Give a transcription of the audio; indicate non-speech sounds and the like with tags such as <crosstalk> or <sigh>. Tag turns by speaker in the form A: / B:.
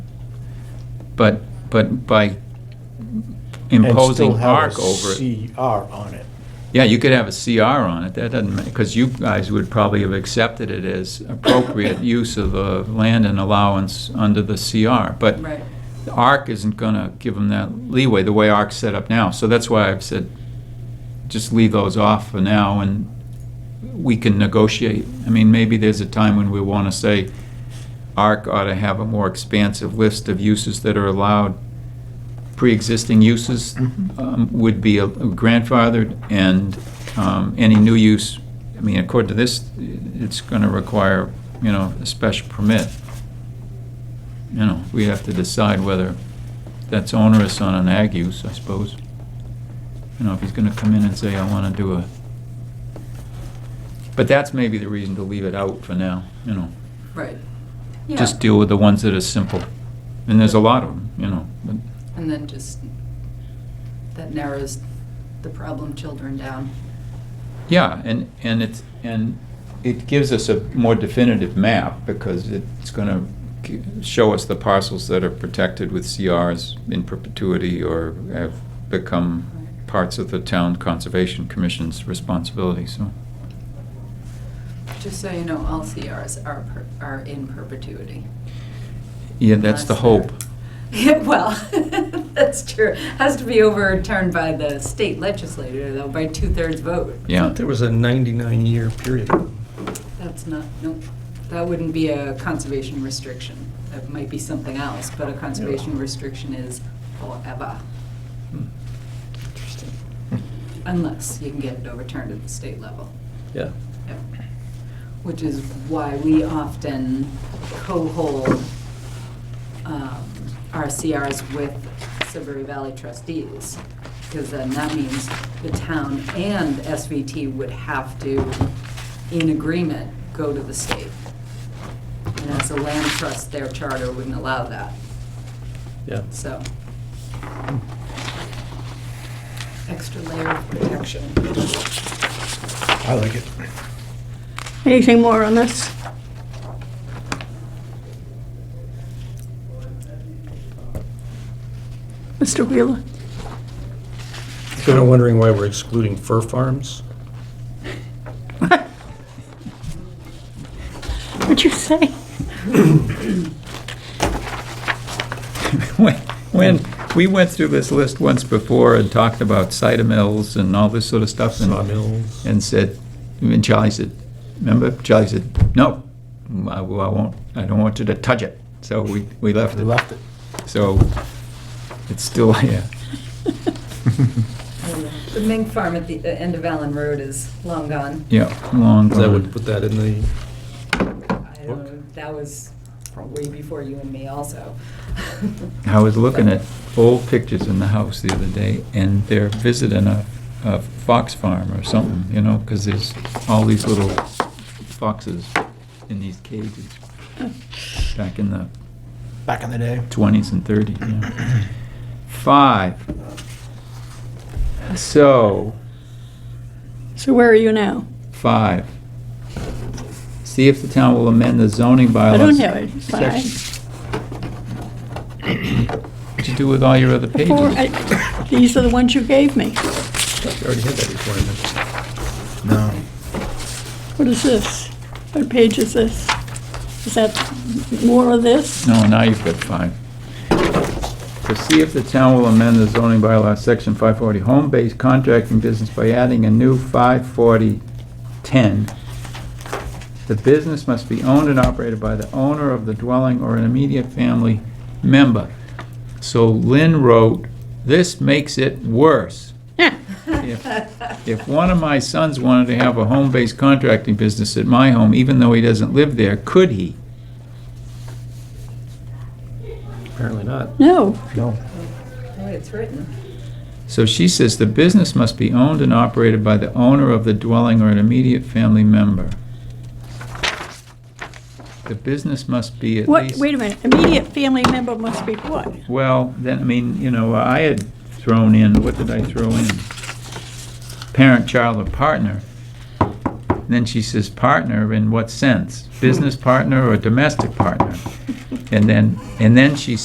A: But, but by
B: and still
A: imposing
B: have
A: arc
B: a
A: over it.
B: CR on it.
A: Yeah, you could have a CR on it, that doesn't, because you guys would probably have accepted it as appropriate use of the land and allowance under the CR. But
C: Right.
A: ARC isn't gonna give them that leeway, the way ARC's set up now. So that's why I've said, just leave those off for now, and we can negotiate. I mean, maybe there's a time when we wanna say, ARC ought to have a more expansive list of uses that are allowed. Pre-existing uses um, would be a- grandfathered, and um, any new use, I mean, according to this, it's gonna require, you know, a special permit you know, we have to decide whether that's onerous on an ag use, I suppose. You know, if he's gonna come in and say, I wanna do a, but that's maybe the reason to leave it out for now, you know.
C: Right.
A: Just deal with the ones that are simple, and there's a lot of them, you know, but,
C: And then just, that narrows the problem children down.
A: yeah, and, and it's, and it gives us a more definitive map, because it's gonna g- show us the parcels that are protected with CRs in perpetuity or have become parts of the town conservation commission's responsibility, so.
C: Just so you know, all CRs are, per- are in perpetuity.
A: Yeah, that's the
C: Unless
A: hope. <laughs>
C: they're- <laughs> Yeah, well, <laughs> that's true. Has to be overturned by the state legislature, though, by two-thirds vote.
D: I
A: Yeah,
D: thought there was a 99-year period.
C: That's not, nope, that wouldn't be a conservation restriction. That might be something else, but a conservation restriction is forever.
D: Interesting.
C: Unless you can get it overturned at the state level.
D: Yeah.
C: Yep. Which is why we often co-hold um, our CRs with Silbury Valley trustees, because then that means the town and SVT would have to, in agreement, go to the state. And as a land trust, their charter wouldn't allow that,
D: Yeah.
C: so. Extra layer of protection.
B: I like it.
E: Anything more on this? Mr. Wheeler?
D: Kind of wondering why we're excluding fur farms?
E: What'd you say? <laughs>
A: when, when, we went through this list once before and talked about cider mills and all this sort of stuff. and-
D: Sawmills.
A: And said, and Charlie said, remember, Charlie said, no, I well, I won't, I don't want you to touch it. So we, we left
B: We
A: it.
B: left it.
A: So it's still, yeah,
C: The Mink Farm at the uh, end of Allen Road is long gone.
A: yeah, long
D: That
A: gone.
D: would put that in the,
C: I don't, know, that was way before you and me also.
A: I was looking
C: <laughs>
A: at old pictures in the house the other day, and they're visiting a, a fox farm or something, you know, because there's all these little foxes in these cages back in the
B: Back in the day.
A: twenties and thirties. Yeah. Five. So
E: So where are you now?
A: five. See if the town will amend the zoning
E: I
A: bylaws.
E: don't have it. Five.
A: section- <coughs> What'd you do with all your other pages?
E: Four, I- These are the ones you gave me.
D: I already had that requirement.
B: No.
E: What is this? What page is this? Is that more of this?
A: No, now you've got five. To see if the town will amend the zoning bylaw, section five forty, home-based contracting business by adding a new five forty ten. The business must be owned and operated by the owner of the dwelling or an immediate family member. So Lynn wrote, this makes it worse. If if one of my sons wanted to have a home-based contracting business at my home, even though he doesn't live there, could he?
D: Apparently not.
E: No.
B: No.
C: The way it's written.
A: So she says the business must be owned and operated by the owner of the dwelling or an immediate family member. The business must be at
E: What,
A: least.
E: wait a minute. Immediate family member must be what?
A: Well, then, I mean, you know, I had thrown in, what did I throw in? Parent, child, or partner. And Then she says partner in what sense? Business partner or domestic partner? And then, and then she